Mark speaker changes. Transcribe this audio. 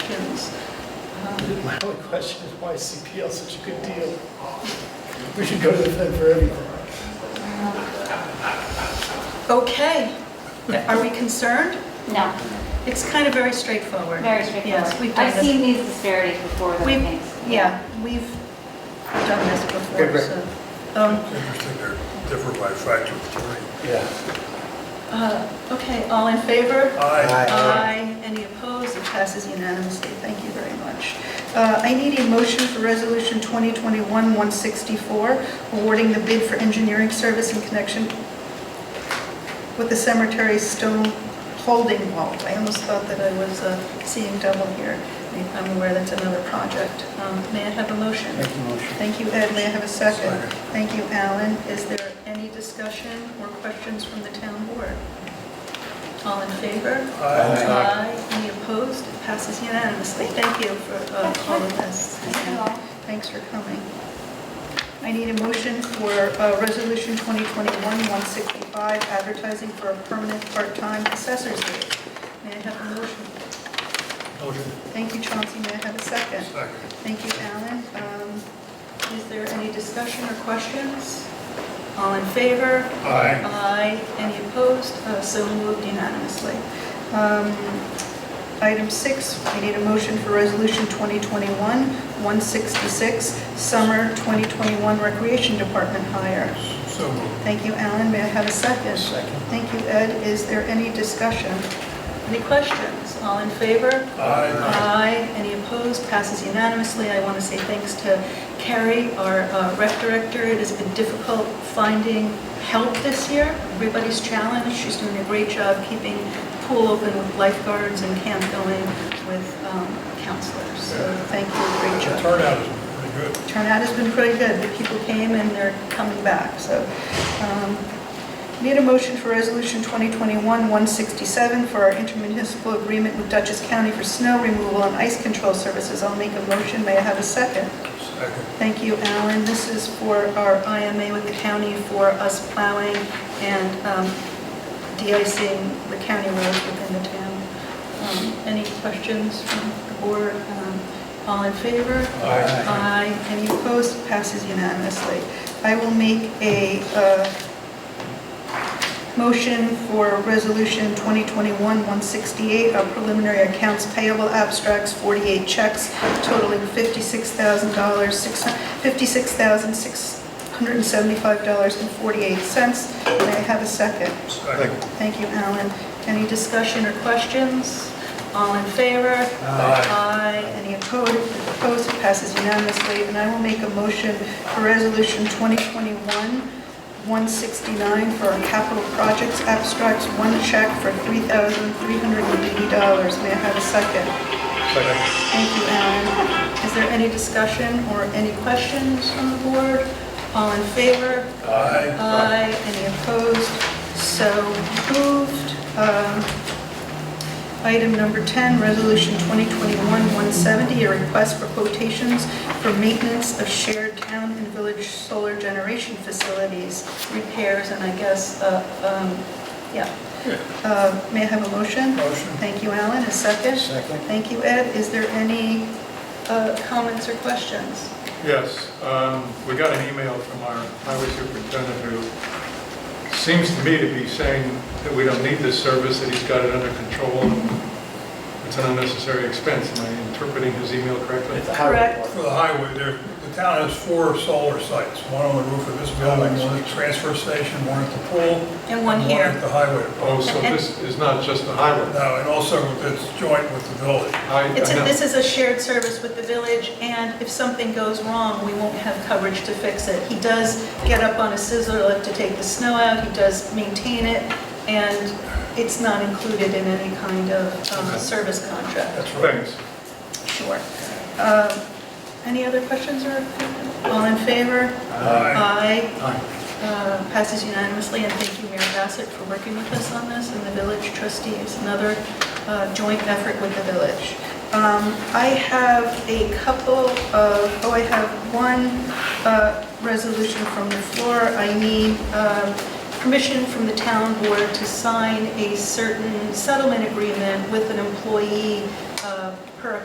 Speaker 1: My only question is why is CPL such a good deal? We should go to them for everything.
Speaker 2: Okay. Are we concerned?
Speaker 3: No,
Speaker 2: It's kind of very straightforward.
Speaker 3: very straightforward.
Speaker 2: Yes, we've done
Speaker 3: I've seen
Speaker 2: this.
Speaker 3: these disparities before, those
Speaker 2: We've-
Speaker 3: things.
Speaker 2: Yeah, we've done this before,
Speaker 1: Okay,
Speaker 2: so. Um,
Speaker 4: Interesting, they're different by a factor of three.
Speaker 1: Yeah.
Speaker 2: uh, Okay, all in favor?
Speaker 4: Aye.
Speaker 2: Aye. Any opposed? It passes unanimously. Thank you very much. Uh, I need a motion for Resolution 2021-164, awarding the bid for engineering service in connection with the cemetery stone holding vault. I almost thought that I was uh, seeing double here. I'm aware that's another project. Um, May I have a motion?
Speaker 1: Make the motion.
Speaker 2: Thank you, Ed. May I have a second?
Speaker 4: Second.
Speaker 2: Thank you, Alan. Is there any discussion or questions from the town board? All in favor?
Speaker 4: Aye.
Speaker 2: Aye. Any opposed? It passes unanimously. Thank you for uh, all of this.
Speaker 3: Thank you all.
Speaker 2: Thanks for coming. I need a motion for uh, Resolution 2021-165, advertising for a permanent part-time assessor's aide. May I have a motion?
Speaker 4: Motion.
Speaker 2: Thank you, Chauncey. May I have a second?
Speaker 4: Second.
Speaker 2: Thank you, Alan. Um, Is there any discussion or questions? All in favor?
Speaker 4: Aye.
Speaker 2: Aye. Any opposed? Uh, So moved unanimously. Um, Item six, we need a motion for Resolution 2021-166, Summer 2021 Recreation Department hire.
Speaker 4: So moved.
Speaker 2: Thank you, Alan. May I have a second?
Speaker 1: Second.
Speaker 2: Thank you, Ed. Is there any discussion? Any questions? All in favor?
Speaker 4: Aye.
Speaker 2: Aye. Any opposed? Passes unanimously. I want to say thanks to Carrie, our uh, rec director. It has been difficult finding help this year. Everybody's challenged. She's doing a great job keeping pool open with lifeguards and camp going with um, counselors. So thank you. Great job
Speaker 4: The turnout is pretty good.
Speaker 2: turnout has been pretty good. The people came and they're coming back, so. um, Need a motion for Resolution 2021-167 for our intermunicipal agreement with Dutchess County for snow removal and ice control services. I'll make a motion. May I have a second?
Speaker 4: Second.
Speaker 2: Thank you, Alan. This is for our IMA with the county for us plowing and um, de-icing the county roads within the town. Um, Any questions from the board? Um, All in favor?
Speaker 4: Aye.
Speaker 2: Aye. Any opposed? Passes unanimously. I will make a uh, motion for Resolution 2021-168, our preliminary accounts payable abstracts, 48 checks totaling $56,000, six hun- $56,675.48. May I have a second?
Speaker 4: Second.
Speaker 2: Thank you, Alan. Any discussion or questions? All in favor? Aye. Any opposed? Opposed, it passes unanimously. And I will make a motion for Resolution 2021-169 for our capital projects abstracts, one check for $3,380. May I have a second?
Speaker 4: Second.
Speaker 2: Thank you, Alan. Is there any discussion or any questions from the board? All in favor?
Speaker 4: Aye.
Speaker 2: Aye. Any opposed? So moved. Um, Item number 10, Resolution 2021-170, a request for quotations for maintenance of shared town and village solar generation facilities, repairs, and I guess, uh, um, yeah. Uh, May I have a motion?
Speaker 4: Motion.
Speaker 2: Thank you, Alan. A second?
Speaker 1: Second.
Speaker 2: Thank you, Ed. Is there any uh, comments or questions?
Speaker 5: Yes, um, we got an email from our highway superintendent who seems to me to be saying that we don't need this service, that he's got it under control, and it's an unnecessary expense. Am I interpreting his email correctly?
Speaker 1: It's a highway
Speaker 2: Correct.
Speaker 1: department.
Speaker 4: For the highway, there, the town has four solar sites, one on the roof of this building, one at the transfer station, one at the pool.
Speaker 2: And one here.
Speaker 4: One at the highway.
Speaker 5: Oh, so this is not just the highway.
Speaker 4: Now, and also it's joint with the village.
Speaker 5: I- I
Speaker 2: It's, a-
Speaker 5: know.
Speaker 2: this is a shared service with the village, and if something goes wrong, we won't have coverage to fix it. He does get up on a scissor lift to take the snow out, he does maintain it, and it's not included in any kind of um,
Speaker 5: Okay.
Speaker 2: service contract.
Speaker 4: That's right.
Speaker 5: Thanks.
Speaker 2: Sure. Um, Any other questions or, all in favor?
Speaker 4: Aye.
Speaker 2: Aye. Uh, Passes unanimously, and thank you, Mayor Bassett, for working with us on this, and the village trustees, another uh, joint effort with the village. Um, I have a couple of, oh, I have one uh, resolution from the floor. I need um, permission from the town board to sign a certain settlement agreement with an employee uh,